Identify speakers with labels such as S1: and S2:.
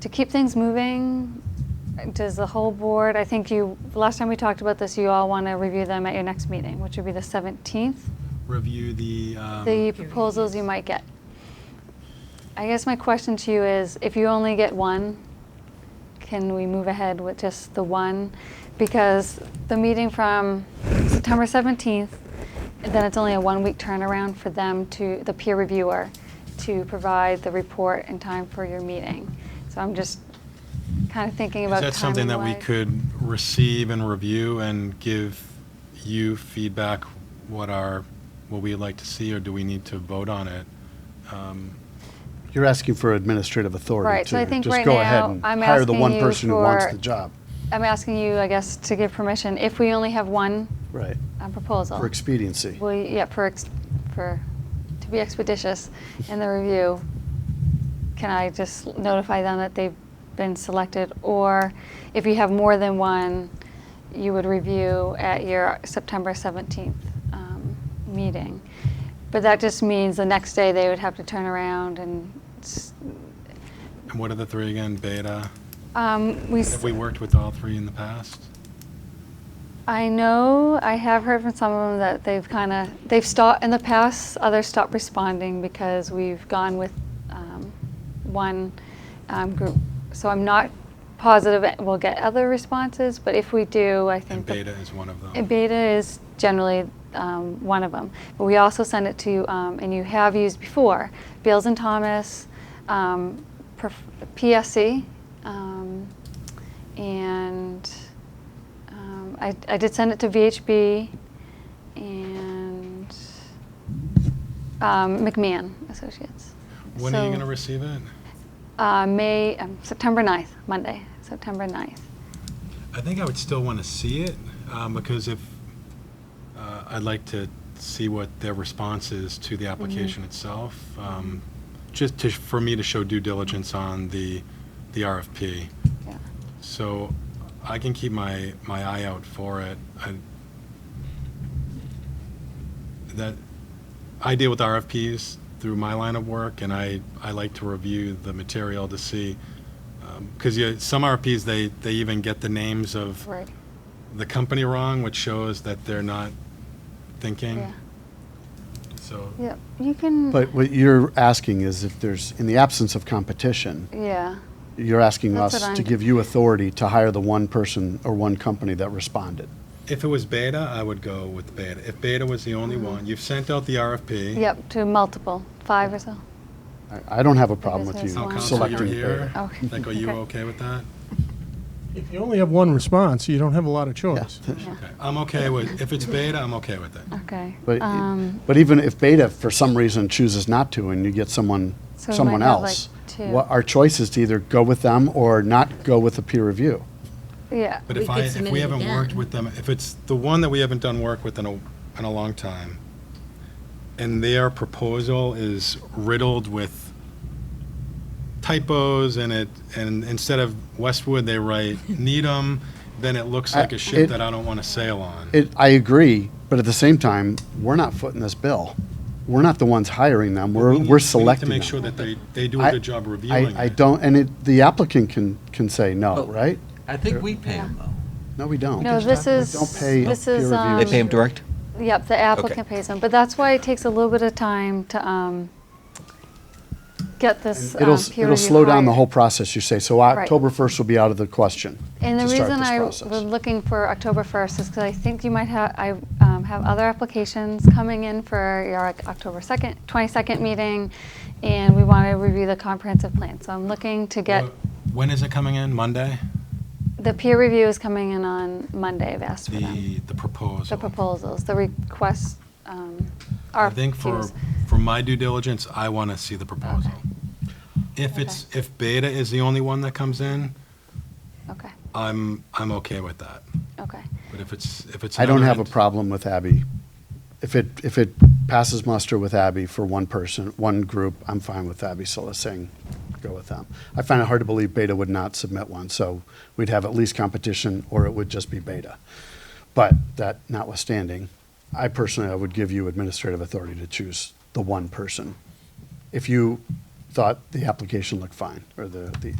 S1: to keep things moving, does the whole board, I think you, last time we talked about this, you all want to review them at your next meeting, which would be the 17th,
S2: review the, um,
S1: the proposals you might get. I guess my question to you is, if you only get one, can we move ahead with just the one? Because the meeting from September 17th, then it's only a one-week turnaround for them to, the peer reviewer, to provide the report in time for your meeting. So I'm just kind of thinking
S2: is
S1: about timing
S2: that something that we could receive and review and give you feedback what our, what we'd like to see, or do we need to vote on it? Um,
S3: You're asking for administrative
S1: Right,
S3: authority
S1: so I
S3: to
S1: think
S3: just
S1: right
S3: go ahead
S1: now,
S3: and
S1: I'm
S3: hire the
S1: asking
S3: one
S1: you
S3: person who wants
S1: for-
S3: the job.
S1: I'm asking you, I guess, to give permission, if we only have one
S3: Right,
S1: uh, proposal.
S3: for expediency.
S1: Well, yeah, for, ex- for, to be expeditious in the review, can I just notify them that they've been selected? Or if you have more than one, you would review at your September 17th um, meeting. But that just means the next day they would have to turn around and, s-
S2: And what are the three again? Beta?
S1: um, we. s-
S2: Have we worked with all three in the past?
S1: I know, I have heard from some of them that they've kind of, they've stopped, in the past, others stopped responding because we've gone with um, one um, group. So I'm not positive that we'll get other responses, but if we do, I think.
S2: And
S1: the-
S2: beta is one of
S1: uh,
S2: them.
S1: Beta is generally um, one of them, but we also send it to, um, and you have used before, Beals and Thomas, um, perf- PSC, um, and um, I, I did send it to VHB and um, McMahon Associates.
S2: When are
S1: So-
S2: you going to receive it?
S1: Uh, May, um, September 9th, Monday, September 9th.
S2: I think I would still want to see it, um, because if, uh, I'd like to see what their response is to the application itself, um, just to, for me to show due diligence on the, the RFP.
S1: Yeah.
S2: So I can keep my, my eye out for it. I- That, I deal with RFPs through my line of work, and I, I like to review the material to see, because you, some RFPs, they, they even get the names of
S1: Right.
S2: the company wrong, which shows that they're not thinking.
S1: Yeah.
S2: So,
S1: Yeah. You can.
S3: But what you're asking is if there's, in the absence of competition,
S1: yeah.
S3: you're asking
S1: That's
S3: us
S1: what
S3: to
S1: I'm-
S3: give you authority to hire the one person or one company that responded.
S2: if it was Beta, I would go with Beta. If Beta was the
S1: Mm-hmm.
S2: only one, you've sent out the RFP.
S1: Yep, to multiple, five or so.
S3: I- I don't have a problem with
S1: Because there's
S3: you
S2: Town
S1: one.
S2: council,
S3: selecting
S2: you're here.
S3: Beta.
S1: Okay.
S2: Like, are you
S1: Okay.
S2: okay with that?
S4: If you only have one response, you don't have a lot of choice.
S2: Okay. I'm okay with, if it's Beta, I'm okay with it.
S1: Okay.
S3: But,
S1: Um,
S3: but even if Beta, for some reason, chooses not to, and you get someone,
S1: So we
S3: someone
S1: might have, like,
S3: else,
S1: two.
S3: what, our choice is to either go with them or not go with a peer review.
S1: Yeah,
S2: But
S5: We
S2: if
S5: could
S2: I, if
S5: submit
S2: we
S5: it
S2: haven't worked
S5: again.
S2: with them, if it's the one that we haven't done work with in a, in a long time, and their proposal is riddled with typos and it, and instead of Westwood, they write Needham, then it looks
S3: I-
S2: like a ship
S3: it-
S2: that I don't want to sail on.
S3: It, I agree, but at the same time, we're not footing this bill. We're not the ones hiring them. We're,
S2: We need-
S3: we're selecting
S2: We
S3: them.
S2: need to make sure that they, they do a
S3: I-
S2: good job
S3: I,
S2: reviewing
S3: I
S2: it.
S3: don't, and it, the applicant can, can say no,
S6: Well-
S3: right?
S6: I think we pay them though.
S3: No, we don't.
S1: no, this is,
S3: Don't pay
S1: this
S3: peer
S1: is,
S3: review.
S1: um,
S6: They pay them direct?
S1: yep, the applicant pays them, but that's why it takes a little bit of time to, um, get this, um, peer
S3: It'll, s-
S1: review.
S3: it'll slow down the
S1: hired.
S3: whole process, you say. So October 1st will be out of the question
S1: And the
S3: to start
S1: reason
S3: this
S1: I was
S3: process.
S1: looking for October 1st is because I think you might have, I um, have other applications coming in for your like, October 2nd, 22nd meeting, and we want to review the comprehensive plan. So I'm looking to get,
S2: When is it coming in? Monday?
S1: the peer review is coming in on Monday, I've asked for them.
S2: The, the proposal.
S1: The proposals, the requests, um,
S2: I think for,
S1: RFQs.
S2: for my due diligence, I want to see the proposal. If it's, if Beta is the only one that comes in,
S1: Okay,
S2: I'm, I'm okay with that.
S1: okay.
S2: But if it's, if it's.
S3: I don't
S2: another
S3: have a
S2: ent-
S3: problem with Abby. If it, if it passes muster with Abby for one person, one group, I'm fine with Abby saying go with them. I find it hard to believe Beta would not submit one, so we'd have at least competition, or it would just be Beta. But that notwithstanding, I personally, I would give you administrative authority to choose the one person. If you thought the application looked fine, or the, the